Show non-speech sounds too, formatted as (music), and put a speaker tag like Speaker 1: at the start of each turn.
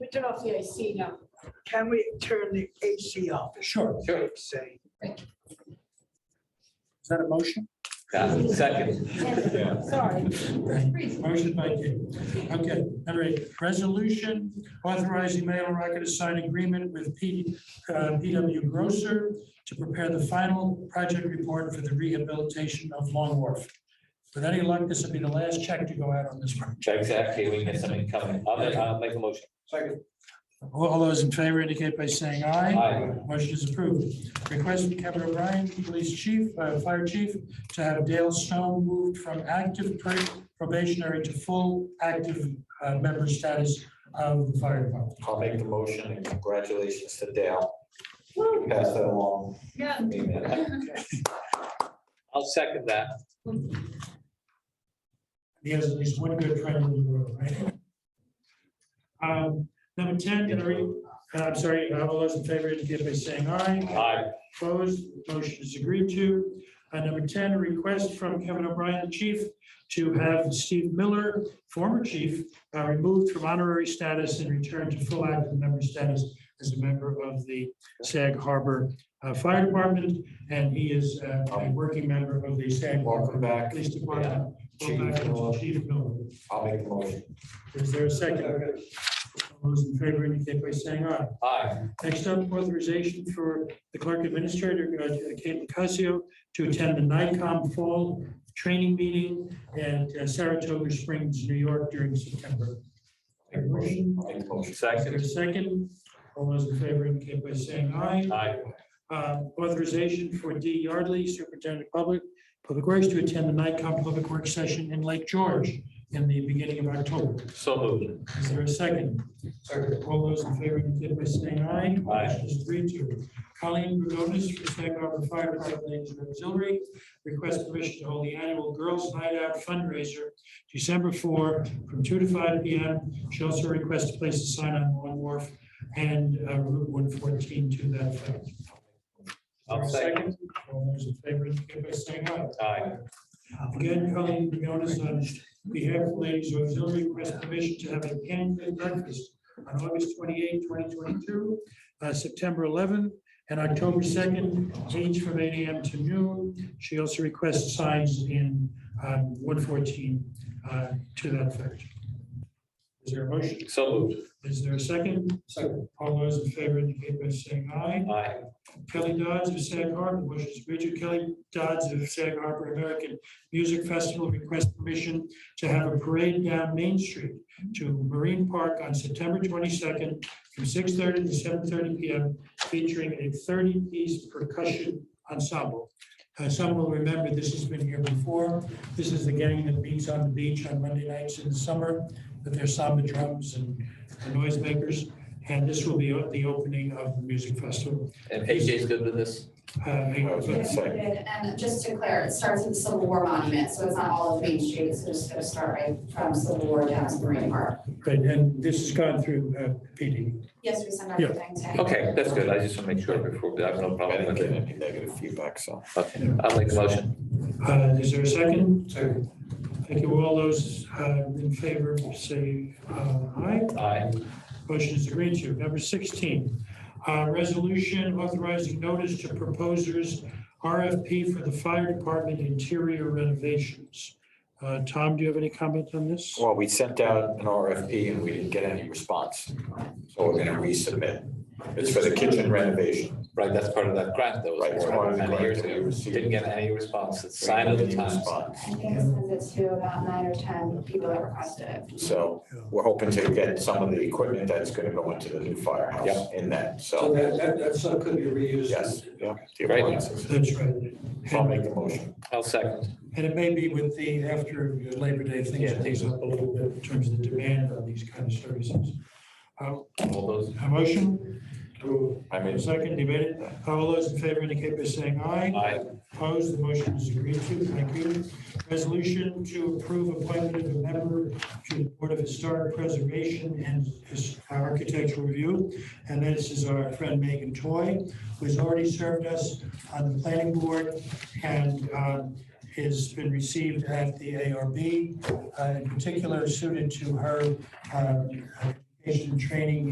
Speaker 1: we turn off the AC now?
Speaker 2: Can we turn the AC off?
Speaker 3: Sure.
Speaker 4: Sure.
Speaker 2: Say,
Speaker 3: Is that a motion?
Speaker 4: Uh, Second,
Speaker 3: Yeah.
Speaker 1: Sorry.
Speaker 3: Motion by you. Okay, all right. Resolution authorizing Mayor LaRocca to sign agreement with P- uh, PW Grocer to prepare the final project report for the rehabilitation of Long Wharf. With any luck, this will be the last check to go out on this project.
Speaker 4: exactly, we get something coming. I'll make, I'll make a motion.
Speaker 3: All those in favor indicate by saying aye.
Speaker 4: Aye.
Speaker 3: Motion is approved. Request from Kevin O'Brien, Police Chief, uh, Fire Chief, to have Dale Stone moved from active pr- probationary to full active uh, member status of the fire department.
Speaker 5: I'll make the motion and congratulations to Dale. Pass that along.
Speaker 1: Yeah.
Speaker 5: Amen.
Speaker 4: (laughs) I'll second that.
Speaker 3: He has at least one good friend in the room, right? Um, Number 10, can I read- uh, I'm sorry, uh, all those in favor indicate by saying aye.
Speaker 4: Aye.
Speaker 3: Opposed, motion is agreed to. Uh, Number 10, a request from Kevin O'Brien, the chief, to have Steve Miller, former chief, uh, removed from honorary status and returned to full active member status as a member of the Sag Harbor uh, Fire Department, and he is uh, a working member of the Sag
Speaker 5: Welcome
Speaker 3: Harbor
Speaker 5: back.
Speaker 3: Police Department.
Speaker 5: Chief
Speaker 3: Welcome back,
Speaker 5: Miller.
Speaker 3: Chief Miller.
Speaker 5: I'll make the motion.
Speaker 3: Is there a second? All those in favor indicate by saying aye.
Speaker 4: Aye.
Speaker 3: Next up, authorization for the clerk administrator, uh, Kate Lucassio, to attend the NICOM Fall Training Meeting at uh, Saratoga Springs, New York during September.
Speaker 5: Make the motion. I'll make the motion.
Speaker 3: Is there
Speaker 4: Second.
Speaker 3: a second? All those in favor indicate by saying aye.
Speaker 4: Aye.
Speaker 3: Uh, Authorization for D Yardley, Superintendent of Public, Public Works, to attend the NICOM Public Works Session in Lake George in the beginning of October.
Speaker 4: So moved.
Speaker 3: Is there a second? Second. All those in favor indicate by saying aye.
Speaker 4: Aye.
Speaker 3: Motion is three two. Colleen Brudonis for Sag Harbor Fire Department Ladies and Auxiliary, request permission to hold the annual Girls Night Out fundraiser December four from two to five P M. She also requests to place a sign on Long Wharf and uh, Route one fourteen to that effect. Is there
Speaker 4: I'll
Speaker 3: a
Speaker 4: second.
Speaker 3: All those in favor indicate by saying aye.
Speaker 4: Aye.
Speaker 3: Again, Colleen Briones on behalf of Ladies Auxiliary request permission to have a pancake breakfast on August 28, 2022, uh, September 11, and October 2nd, each from 8 AM to noon. She also requests signs in um, 114 uh, to that effect. Is there a motion?
Speaker 4: So moved.
Speaker 3: Is there a second? Second. All those in favor indicate by saying aye.
Speaker 4: Aye.
Speaker 3: Kelly Dodds of Sag Harbor wishes Richard Kelly Dodds of Sag Harbor American Music Festival requests permission to have a parade down Main Street to Marine Park on September twenty-second from six-thirty to seven-thirty PM featuring a thirty-piece percussion ensemble. Uh, Some will remember, this has been here before. This is the gang that meets on the beach on Monday nights in the summer with their samba drums and the noisemakers. And this will be o- the opening of the music festival.
Speaker 4: And AJ's good with this?
Speaker 3: Uh,
Speaker 5: I was gonna say,
Speaker 6: And just to clear, it starts with the Civil War Monument, so it's not all of Main Street, so it's gonna start right from Civil War down to Marine Park.
Speaker 3: Great, and this has gone through uh, PD.
Speaker 6: Yes, we send
Speaker 3: Yeah.
Speaker 6: everything to.
Speaker 4: Okay, that's good. I just want to make sure before, I have no
Speaker 5: I
Speaker 4: problem
Speaker 5: didn't
Speaker 4: with
Speaker 5: get
Speaker 4: it.
Speaker 5: any negative feedback, so.
Speaker 4: Okay, I'll make the motion.
Speaker 3: Uh, Is there a second? Second. Thank you. All those uh, in favor, say uh, aye.
Speaker 4: Aye.
Speaker 3: Motion is agreed to. Number 16, uh, resolution authorizing notice to proposers RFP for the fire department interior renovations. Uh, Tom, do you have any comment on this?
Speaker 5: Well, we sent out an RFP and we didn't get any response. So we're gonna resubmit. It's for the kitchen renovation.
Speaker 4: Right, that's part of that grant that
Speaker 5: Right,
Speaker 4: was
Speaker 5: it's part
Speaker 4: awarded
Speaker 5: of the
Speaker 4: many years
Speaker 5: grant that we
Speaker 4: ago.
Speaker 5: received.
Speaker 4: Didn't get any response. It's sign of the
Speaker 5: Any
Speaker 4: times.
Speaker 5: response.
Speaker 6: I think it sends it to about nine or ten people that requested it.
Speaker 5: So we're hoping to get some of the equipment that's gonna go into the new firehouse
Speaker 4: Yep.
Speaker 5: in that,
Speaker 7: So
Speaker 5: so,
Speaker 7: that, that, that stuff could be reused.
Speaker 5: yes, yeah. the
Speaker 4: Great.
Speaker 5: appliances.
Speaker 3: That's right.
Speaker 5: So I'll make the motion.
Speaker 4: I'll second.
Speaker 3: And it may be with the, after Labor Day, things
Speaker 5: Yeah.
Speaker 3: ease up a little bit in terms of the demand on these kind of services. Uh,
Speaker 4: All those,
Speaker 3: A motion,
Speaker 5: I mean,
Speaker 3: second, debated. All those in favor indicate by saying aye.
Speaker 4: aye.
Speaker 3: Opposed, the motion is agreed to. Thank you. Resolution to approve appointment of a member to the Board of Historic Preservation and His- Architectural Review. And this is our friend Megan Toy, who has already served us on the planning board and um, has been received at the ARB, uh, in particular suited to her um, uh, education, training,